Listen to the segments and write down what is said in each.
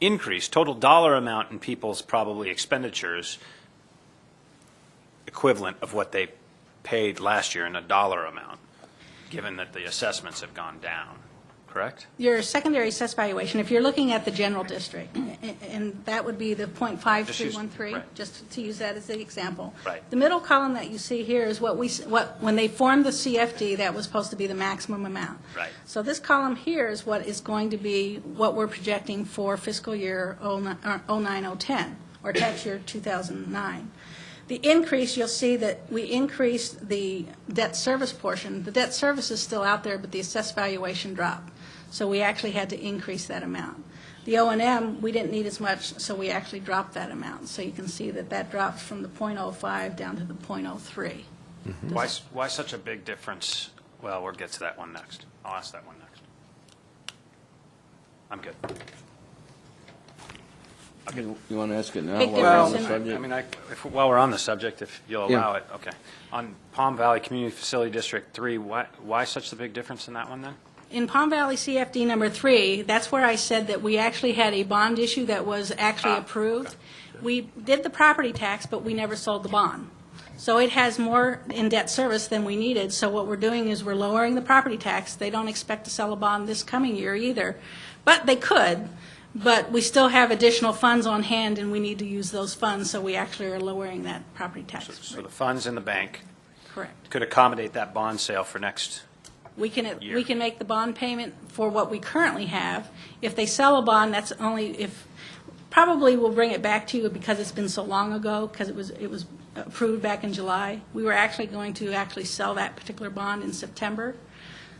increase, total dollar amount in people's probably expenditures equivalent of what they paid last year in a dollar amount, given that the assessments have gone down, correct? Your secondary assessed valuation, if you're looking at the general district, a- a- and that would be the Just use- .5313, right. just to use that as the example. Right. The middle column that you see here is what we, s- what, when they formed the CFD, that was supposed to be the maximum amount. Right. So this column here is what is going to be, what we're projecting for fiscal year uh, 09-010, or tax year 2009. The increase, you'll see that we increased the debt service portion. The debt service is still out there, but the assessed valuation dropped. So we actually had to increase that amount. The O and M, we didn't need as much, so we actually dropped that amount. So you can see that that dropped from the .05 down to the .03. Why, s- why such a big difference? Well, we'll get to that one next. I'll ask that one next. I'm good. You want to ask it now? Big while we're on the difference in- I subject? mean, I, if, while we're on the subject, if you'll Yeah. allow it, okay. On Palm Valley Community Facility District Three, why, why such the big difference in that one then? In Palm Valley CFD number three, that's where I said that we actually had a bond issue that was Ah, actually approved. We did the property tax, but we never sold the bond. So it has more in debt service than we needed, so what we're doing is we're lowering the property tax. They don't expect to sell a bond this coming year either, but they could. But we still have additional funds on hand, and we need to use those funds, so we actually are lowering that property tax. So the funds in the bank Correct. could accommodate that bond sale for next, We can, Year. we can make the bond payment for what we currently have. If they sell a bond, that's only if, probably we'll bring it back to you because it's been so long ago, because it was, it was approved back in July. We were actually going to actually sell that particular bond in September.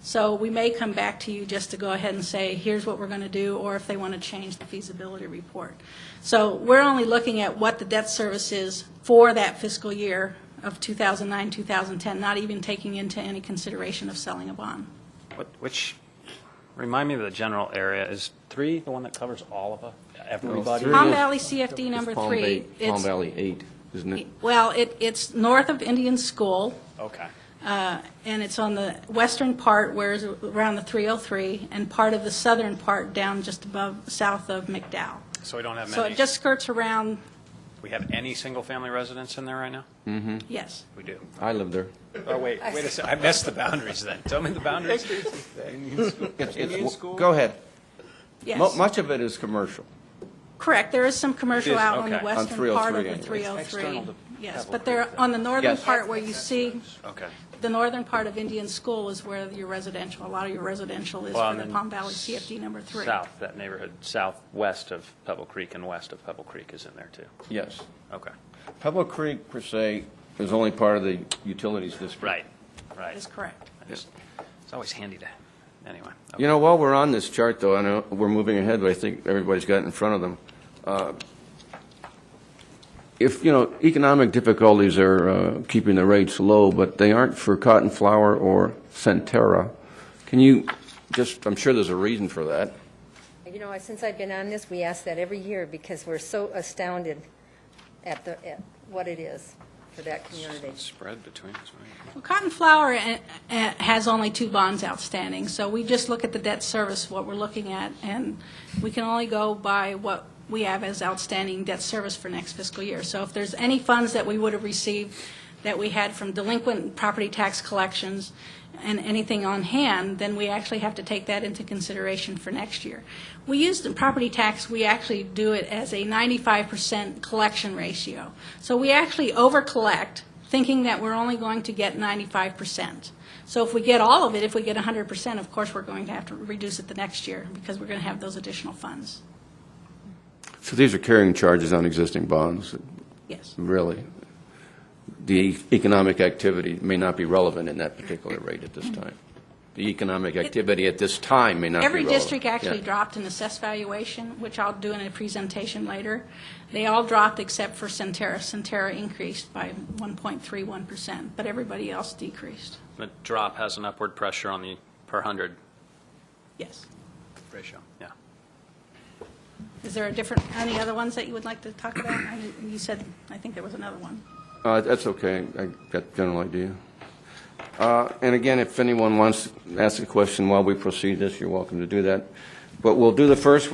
So we may come back to you just to go ahead and say, here's what we're going to do, or if they want to change the feasibility report. So we're only looking at what the debt service is for that fiscal year of 2009, 2010, not even taking into any consideration of selling a bond. what, which, remind me of the general area, is three the one that covers all of us, everybody? three- Palm is- Valley CFD number It's Palm three. Bay- Palm It's Valley 8, isn't it? Well, it, it's north of Indian School, Okay. and it's on the western part where is around the 303, and part of the southern part down just above, south of McDowell. So we don't have So many, it just skirts around, we have any single-family residents in there right now? yes. We do. I live there. Oh, wait, wait a sec, I missed the boundaries then. Tell me the boundaries. It's- it's- Indian school? Go ahead. Mo- Yes, Much of it is commercial. correct. There is some commercial out on the okay. On western part of 303, the anyway. 303. Yes, but they're on the northern oh Yes. part where you see, Okay. the northern part of Indian School is where your residential, a lot of your residential is Well, for and the then Palm Valley CFD number three. South, that neighborhood southwest of Pebble Creek and west of Pebble Creek is in there too. Yes. Okay. Pebble Creek, per se, is only part of the utilities district. Right, right. That is correct. I just- It's always handy to, anyway. You know, while we're on this chart, though, I know we're moving ahead, but I think everybody's got it in front of them. Uh, If, you know, economic difficulties are uh, keeping the rates low, but they aren't for cotton flower or Centera, can you just, I'm sure there's a reason for that. You know, since I've been on this, we ask that every year because we're so astounded at the, at what it is for that community. Spread between us, right? Well, Cotton Flower eh, eh, has only two bonds outstanding, so we just look at the debt service, what we're looking at, and we can only go by what we have as outstanding debt service for next fiscal year. So if there's any funds that we would have received that we had from delinquent property tax collections and anything on hand, then we actually have to take that into consideration for next year. We use the property tax, we actually do it as a 95% collection ratio. So we actually over-collect thinking that we're only going to get 95%. So if we get all of it, if we get 100%, of course, we're going to have to reduce it the next year because we're going to have those additional funds. So these are carrying charges on existing bonds, Yes. really. The economic activity may not be relevant in that particular rate at this time. The economic activity at this time may not be Every relevant. district actually Yeah. dropped an assessed valuation, which I'll do in a presentation later. They all dropped except for Centerra. Centerra increased by 1.31%, but everybody else decreased. The drop has an upward pressure on the per hundred Yes. ratio, yeah. Is there a different, any other ones that you would like to talk about? I didn't- You said, I think there was another one. Uh, That's okay, I got the general idea. Uh, And again, if anyone wants to ask a question while we proceed this, you're welcome to do that. But we'll do the first